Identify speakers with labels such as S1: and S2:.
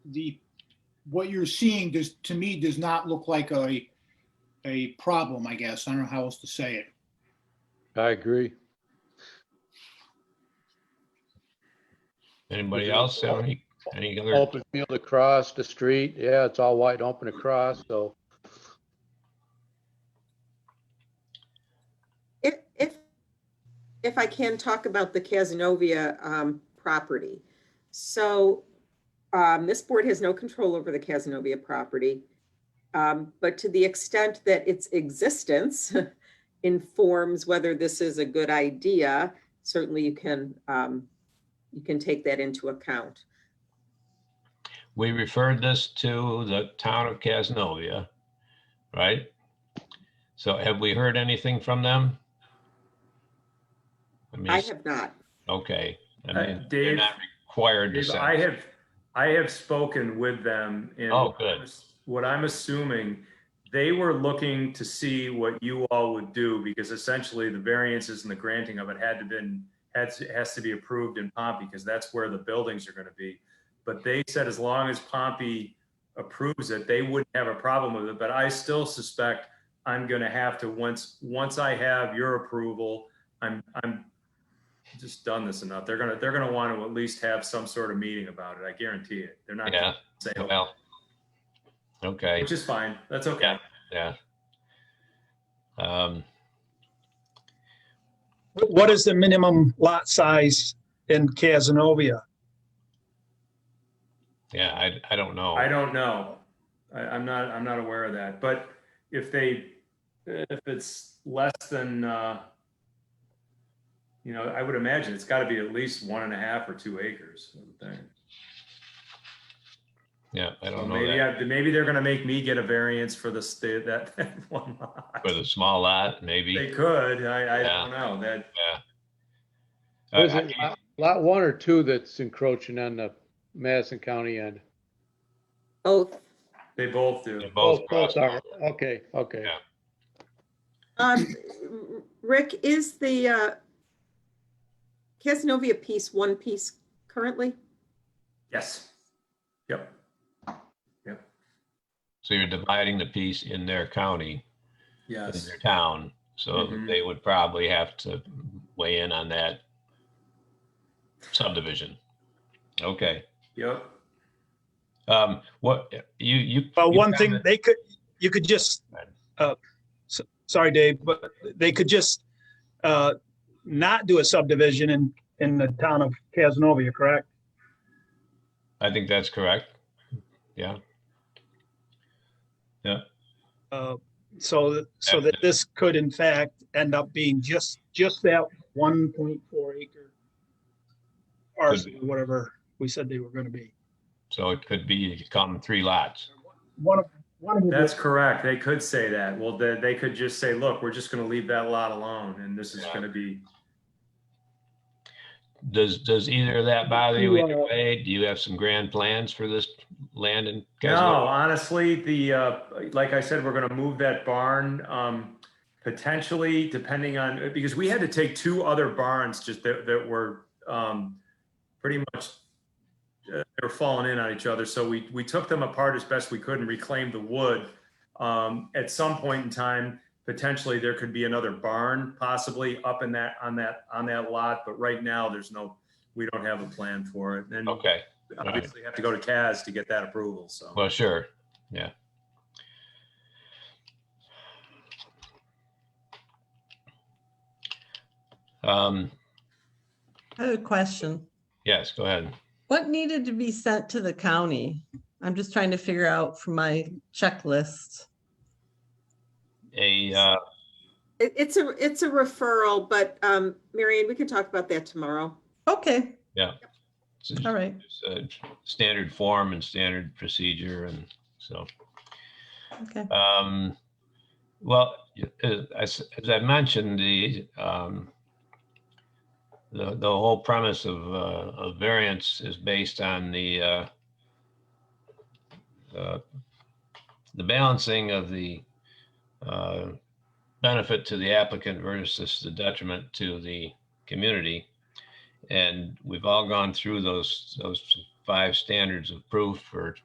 S1: the, what you're seeing does, to me, does not look like a, a problem, I guess. I don't know how else to say it.
S2: I agree.
S3: Anybody else have any, any other,
S2: Open field across the street. Yeah, it's all wide open across, so
S4: If, if, if I can talk about the Casanova um, property. So um, this board has no control over the Casanova property. um, But to the extent that its existence informs whether this is a good idea, certainly you can, um, you can take that into account.
S3: we referred this to the town of Casanova, right? So have we heard anything from them? I
S4: I
S3: mean,
S4: have not.
S3: okay, I
S5: Uh,
S3: mean, they're
S5: Dave,
S3: not required to
S5: Dave,
S3: send.
S5: I have, I have spoken with them and.
S3: Oh, good.
S5: What I'm assuming, they were looking to see what you all would do because essentially the variances and the granting of it had to been, has, has to be approved in Pompey because that's where the buildings are going to be. But they said as long as Pompey approves it, they wouldn't have a problem with it. But I still suspect I'm going to have to, once, once I have your approval, I'm, I'm just done this enough. They're gonna, they're gonna want to at least have some sort of meeting about it. I guarantee it. They're not
S3: Yeah,
S5: gonna say, "Oh,"
S3: well, okay,
S5: which is fine. That's okay.
S3: Yeah. yeah. Um,
S6: What is the minimum lot size in Casanova?
S3: yeah, I, I don't know.
S5: I don't know. I, I'm not, I'm not aware of that, but if they, if it's less than, uh, you know, I would imagine it's gotta be at least one and a half or two acres. I would think.
S3: Yeah, I
S5: So
S3: don't know
S5: Maybe,
S3: that.
S5: I- maybe they're gonna make me get a variance for the state, that, that one lot.
S3: With a small lot, maybe.
S5: They could. I, I
S3: Yeah.
S5: don't know that.
S3: I-
S2: is it
S3: Uh, I-
S2: lot- lot one or two that's encroaching on the Madison County end?
S4: Both.
S5: They both do.
S3: They both
S2: Both
S3: cross.
S2: are. Okay, okay.
S3: Yeah.
S4: Um, Rick, is the uh, Casanova piece one piece currently?
S5: Yes. Yep.
S3: So you're dividing the piece in their county, in
S5: Yes.
S3: their town. So
S6: Mm-hmm.
S5: Mhm.
S3: they would probably have to weigh in on that subdivision. Okay.
S5: Yep.
S3: Um, what, you, you.
S6: Well,
S3: you
S6: one thing,
S3: comment-
S6: they could, you could just, uh, s- sorry, Dave, but they could just uh, not do a subdivision in, in the town of Casanova, correct?
S3: I think that's correct. Yeah,
S6: Uh, So, th- so that this could in fact end up being just, just that 1.4 acre parcel, whatever we said they were going to be.
S3: so it could be, come three lots.
S6: One of, one of them
S5: That's correct. They could say that. Well, they, they could just say, look, we're just gonna leave that lot alone and this is
S3: Yeah.
S5: gonna be,
S3: Does, does either of that bother you
S6: You,
S3: either
S6: uh,
S3: way? Do you have some grand plans for this land in
S5: no,
S3: Casino?
S5: honestly, the, uh, like I said, we're gonna move that barn, um, potentially depending on, because we had to take two other barns just that, that were, um, pretty much, uh, they were falling in on each other. So we, we took them apart as best we could and reclaimed the wood. Um, at some point in time, potentially there could be another barn possibly up in that, on that, on that lot, but right now there's no, we don't have a plan for it. And
S3: Okay.
S5: obviously have to go to CAS to get that approval, so.
S3: Well, sure, yeah. Um,
S7: I have a question.
S3: yes, go ahead.
S7: What needed to be sent to the county? I'm just trying to figure out from my checklist.
S3: A, uh,
S4: It, it's a, it's a referral, but, um, Marion, we can talk about that tomorrow.
S7: Okay,
S3: s-
S7: all right.
S3: s- uh, standard form and standard procedure and so,
S7: Okay.
S3: um, well, y- uh, as, as I mentioned, the, um, the, the whole premise of, uh, of variance is based on the, uh, uh, the balancing of the uh, benefit to the applicant versus the detriment to the community. And we've all gone through those, those five standards of proof for